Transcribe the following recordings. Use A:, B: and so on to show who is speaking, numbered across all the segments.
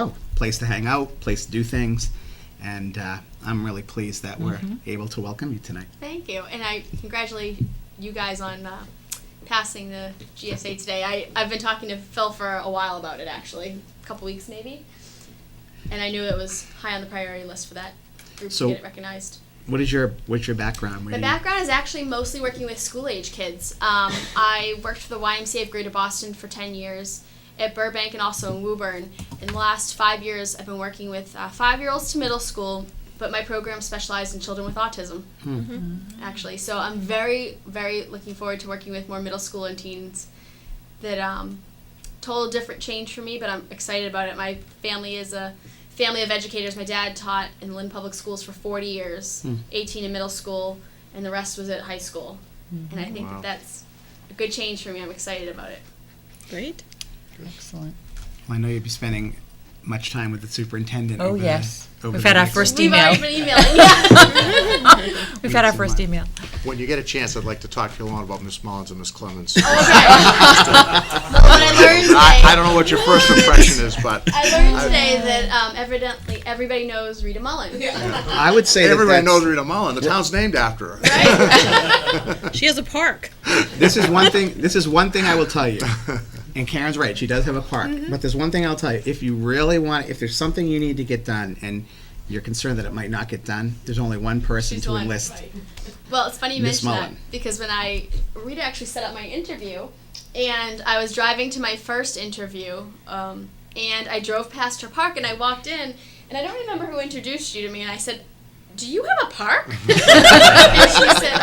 A: Oh. place to hang out, place to do things, and uh, I'm really pleased that we're able to welcome you tonight.
B: Thank you, and I congratulate you guys on uh, passing the GSA today. I I've been talking to Phil for a while about it actually, a couple weeks maybe, and I knew it was high on the priority list for that group
A: So-
B: to get it recognized.
A: What is your what's your background? Where do
B: My
A: you-
B: background is actually mostly working with school age kids. Um, I worked for the YMCA of Greater Boston for 10 years at Burbank and also in Woburn. In the last five years, I've been working with uh, five year olds to middle school, but my program specialized in children with autism, actually. So I'm very, very looking forward to working with more middle school and teens that um, total different change for me, but I'm excited about it. My family is a family of educators. My dad taught in Lynn Public Schools for 40 years, 18 in middle school, and the rest was at high school. And I think that that's a good change for me. I'm excited about it.
C: Great.
D: Excellent.
A: Well, I know you'll be spending much time with the superintendent.
D: Oh,
A: over the-
D: yes.
A: over
D: We've
A: the
D: had our
A: next-
D: first
B: We've
D: email.
B: already been emailing. Yeah.
D: We've had
A: Weeks
D: our
A: and
D: first
A: months.
D: email.
E: When you get a chance, I'd like to talk to you long about Miss Mullins and Miss Clemens.
B: what Oh, I learned today.
E: I, I don't know what your first impression is, but
B: I learned today that um, evidently everybody knows Rita Mullen.
A: I would say that
E: everybody
A: that's-
E: knows Rita Mullin. The town's named after her.
C: She has a park.
A: this is one thing. This is one thing I will tell you. And Karen's right; she does have a park. But there's one thing I'll tell you: if you really want, if there's something you need to get done, and you're concerned that it might not get done, there's only one person
B: She's
A: to
B: the one,
A: enlist.
B: Well, it's funny you
A: Miss
B: mention that
A: Mullen.
B: because when I Rita actually set up my interview, and I was driving to my first interview, um, and I drove past her park, and I walked in, and I don't remember who introduced you to me, and I said. Do you have a park? and she said,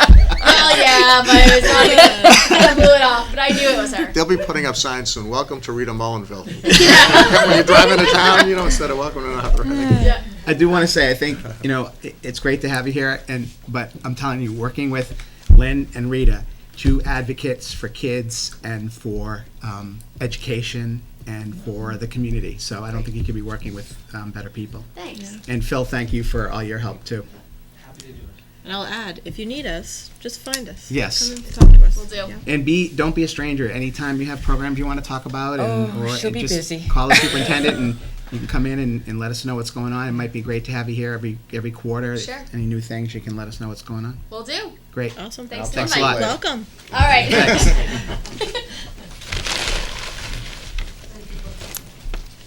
B: "Well, yeah, but it's not good." And I blew it off, but I knew it was her.
E: They'll be putting up signs soon. Welcome to Rita Mullinville. when you drive into town, you know, instead of welcome to another.
B: Yeah.
A: I do want to say, I think you know, it, it's great to have you here, and but I'm telling you, working with Lynn and Rita, two advocates for kids and for um, education and for the community. So I don't think you could be working with um, better people.
B: Thanks.
A: And Phil, thank you for all your help too.
C: And I'll add, if you need us, just find us.
A: Yes.
C: Come and talk to us.
B: Will do.
A: And be don't be a stranger. Anytime you have programs you want to talk about, and,
D: Oh,
A: or
D: she'll
A: and
D: be
A: just
D: busy.
A: call the superintendent, and you can come in and, and let us know what's going on. It might be great to have you here every every quarter.
B: Sure.
A: Any new things, you can let us know what's going on.
B: Will do.
A: Great.
C: Awesome.
B: Thanks for
A: Thanks a
B: the
A: lot.
B: invite.
C: Welcome.
B: All right.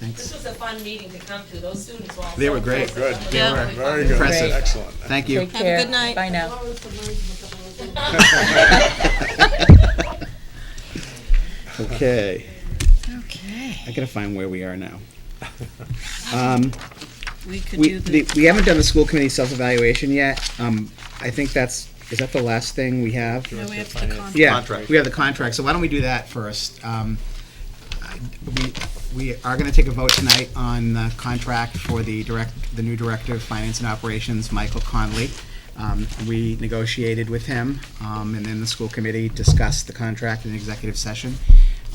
A: Thanks.
F: This was a fun meeting to come to. Those students were all.
A: They
F: so
A: were great.
F: impressive. Some of them
C: Yeah.
F: were really
E: Very
F: fun.
E: good.
A: Impressive.
E: Excellent.
A: Thank you.
D: Take care.
C: good night.
D: Bye now.
A: Okay,
D: Okay.
A: I gotta find where we are now. Um,
C: We could
A: we,
C: do the,
A: the, we haven't done the school committee self-evaluation yet. Um, I think that's, is that the last thing we have?
C: no, we have the contract.
A: Yeah,
E: Contract.
A: We have the contract, so why don't we do that first? Um, I- We, we are gonna take a vote tonight on the contract for the direct, the new Director of Finance and Operations, Michael Conley. Um, we negotiated with him, um, and then the school committee discussed the contract in executive session.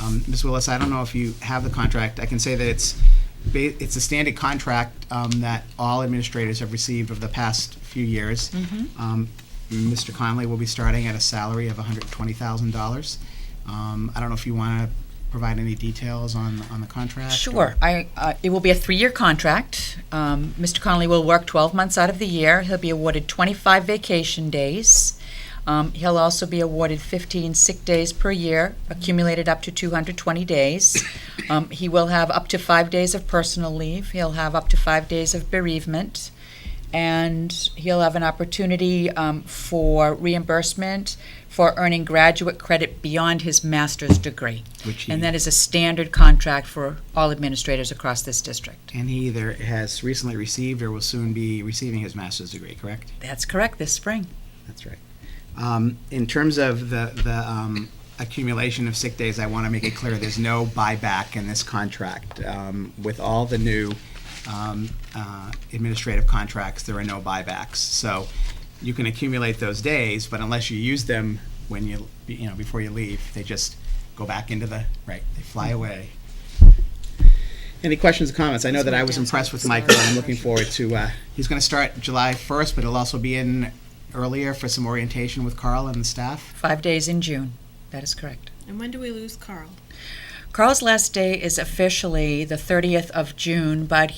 A: Um, Ms. Willis, I don't know if you have the contract, I can say that it's, ba- it's a standard contract, um, that all administrators have received over the past few years.
D: Mm-hmm.
A: Um, Mr. Conley will be starting at a salary of hundred and twenty thousand dollars. Um, I don't know if you wanna provide any details on, on the contract? or-
D: Sure. I, uh, it will be a three-year contract. Um, Mr. Connolly will work 12 months out of the year. He'll be awarded 25 vacation days. Um, he'll also be awarded 15 sick days per year, accumulated up to 220 days. Um, he will have up to five days of personal leave. He'll have up to five days of bereavement. and he'll have an opportunity um, for reimbursement for earning graduate credit beyond his master's degree.
A: Which he-
D: and that is a standard contract for all administrators across this district.
A: And he either has recently received or will soon be receiving his master's degree, correct?
D: That's correct, this spring.
A: That's right. Um, in terms of the, the, um, accumulation of sick days, I wanna make it clear, there's no buyback in this contract. Um, with all the new, um, uh, administrative contracts, there are no buybacks. So you can accumulate those days, but unless you use them when you, you know, before you leave, they just go back into the, right, they fly away. Any questions or comments? I know that I was impressed with Michael, and I'm looking forward to, uh, he's gonna start July first, but he'll also be in earlier for some orientation with Carl and the staff.
D: Five days in June. That is correct.
C: And when do we lose Carl?
D: Carl's last day is officially the 30th of June, but